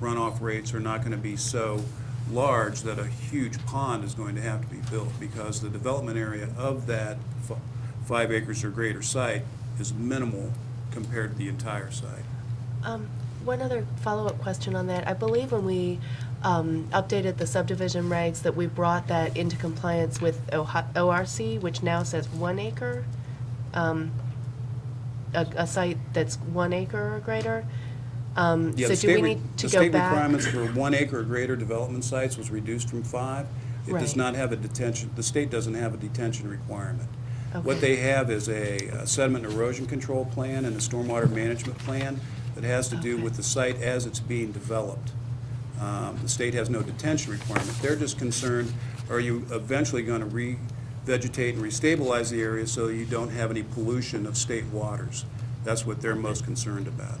runoff rates are not going to be so large that a huge pond is going to have to be built because the development area of that fi- five acres or greater site is minimal compared to the entire site. Um, One other follow-up question on that. I believe when we um, updated the subdivision regs, that we brought that into compliance with Ohi- ORC, which now says one acre, um, a a site that's one acre or greater. Um, Yeah, So the do we state re- need to the go state back? requirements for one acre or greater development sites was reduced from five. It does Right. not have a detention, the state doesn't have a detention requirement. What Okay. they have is a uh, sediment and erosion control plan and a stormwater management plan that has to do Okay. with the site as it's being developed. Um, The state has no detention requirement. They're just concerned, are you eventually going to revegetate and restabilize the area so you don't have any pollution of state waters? That's what they're most concerned about.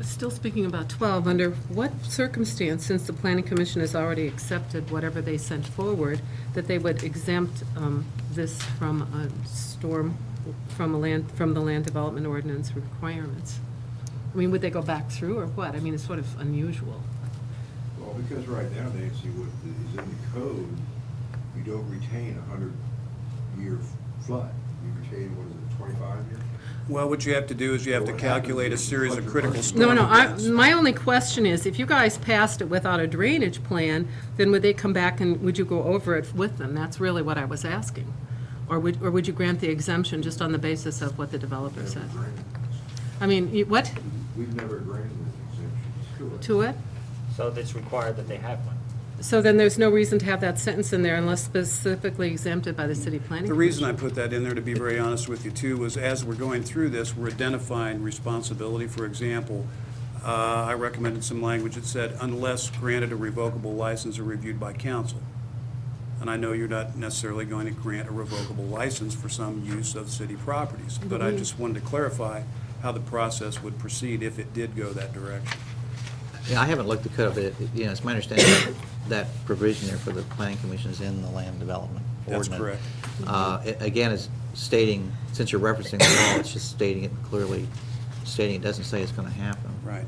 Still speaking about 12, under what circumstance, since the Planning Commission has already accepted whatever they sent forward, that they would exempt um, this from a storm, from a land, from the land development ordinance requirements? I mean, would they go back through or what? I mean, it's sort of unusual. Well, because right now, Nancy, what is in the code, you don't retain a hundred-year flood. You retain, what is it, twenty-five year? Well, what you have to do is you have to What happens calculate a is series of budget critical budget. storm No, no, I, events. my only question is, if you guys passed it without a drainage plan, then would they come back and would you go over it with them? That's really what I was asking. Or would, or would you grant the exemption just on the basis of what the developer Never said? granted. I mean, you- what, We've never granted an exemption to it? So it's required that they have one. So then there's no reason to have that sentence in there unless specifically exempted by the city planning The reason I commission. put that in there, to be very honest with you, too, was as we're going through this, we're identifying responsibility. For example, uh, I recommended some language that said, unless granted a revocable license or reviewed by council. And I know you're not necessarily going to grant a revocable license for some use of city properties, but Mm-hmm. I just wanted to clarify how the process would proceed if it did go that direction. Yeah, I haven't looked the code, but, it- you know, it's my understanding that that provision there for the planning commission is in the land development That's ordinance. correct. Uh, it- Again, it's stating, since you're referencing the law, it's just stating it clearly, stating it doesn't say it's going to happen. Right.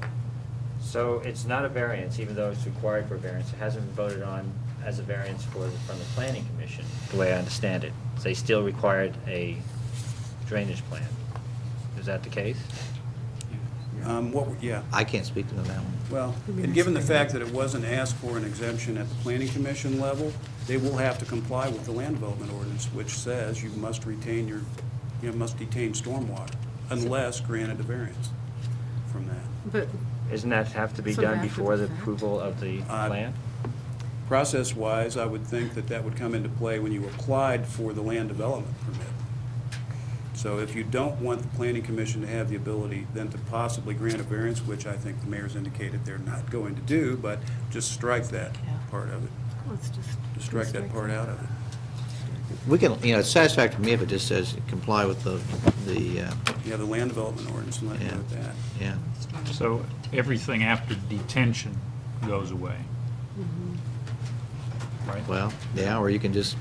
So it's not a variance, even though it's required for variance. It hasn't been voted on as a variance for, from the planning commission, the way I understand it. They still required a drainage plan. Is that the case? Um, What, yeah. I can't speak to that one. Well, and given the fact that it wasn't asked for an exemption at the planning commission level, they will have to comply with the land development ordinance, which says you must retain your, you must detain stormwater unless granted a variance from that. But, Isn't that have to be So done after before the the fact? approval of the Uh, plan? Process-wise, I would think that that would come into play when you applied for the land development permit. So if you don't want the planning commission to have the ability then to possibly grant a variance, which I think the mayor's indicated they're not going to do, but just strike that Yeah. part of it, let's just. just strike that part out of it. We can, you know, it's satisfactory to me if it just says comply with the, the, uh, Yeah, the land development ordinance, I'm not Yeah. good with that. yeah. So everything after detention goes away? Right? Well, yeah, or you can just,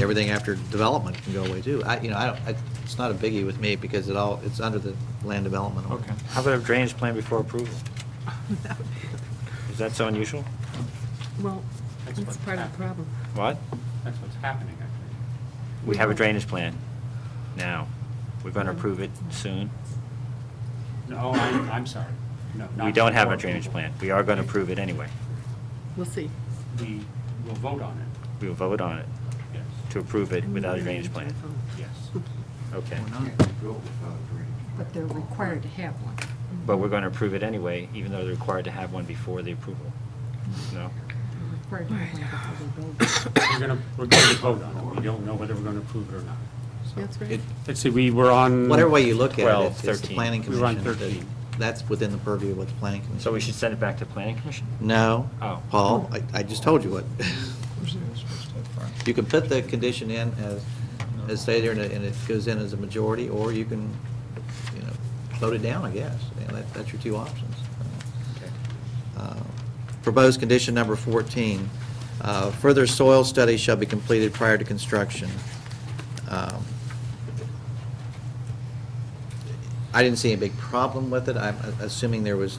everything after development can go away too. I, you know, I don't, I- it's not a biggie with me because it all, it's under the land development Okay. ordinance. How about a drainage plan before approval? Is that so unusual? Well, that's part of the problem. What? That's what's happening, I think. We have a drainage plan now. We're going to approve it soon. No, I'm, I'm sorry. No, We not don't have a before drainage approval. plan. We are going to approve it anyway. We'll see. We will vote on it, We will vote on it yes, to approve it without a drainage plan. yes. Okay. You can't build without a drainage. But they're required to have one. But we're going to approve it anyway, even though they're required to have one before the approval. No? They're required to have one before they build. We're going to, we're going to vote on it. We don't know whether we're going to approve it or not. So- That's right. It- Let's see, we were Mm. on. Whatever way you look at it, 12, it's- it's the 13. planning We were on commission. that- 13. That's within the purview of what the planning commission. So we should send it back to planning commission? No. Oh. Paul, I, I just told you what. You can put the condition in as, as stated, there, and it- and it goes in as a majority, or you can, you know, vote it down, I guess. And that, that's your two options. Okay. Uh, Proposed condition number 14, uh, further soil study shall be completed prior to construction. Um, I didn't see any big problem with it. I'm assuming there was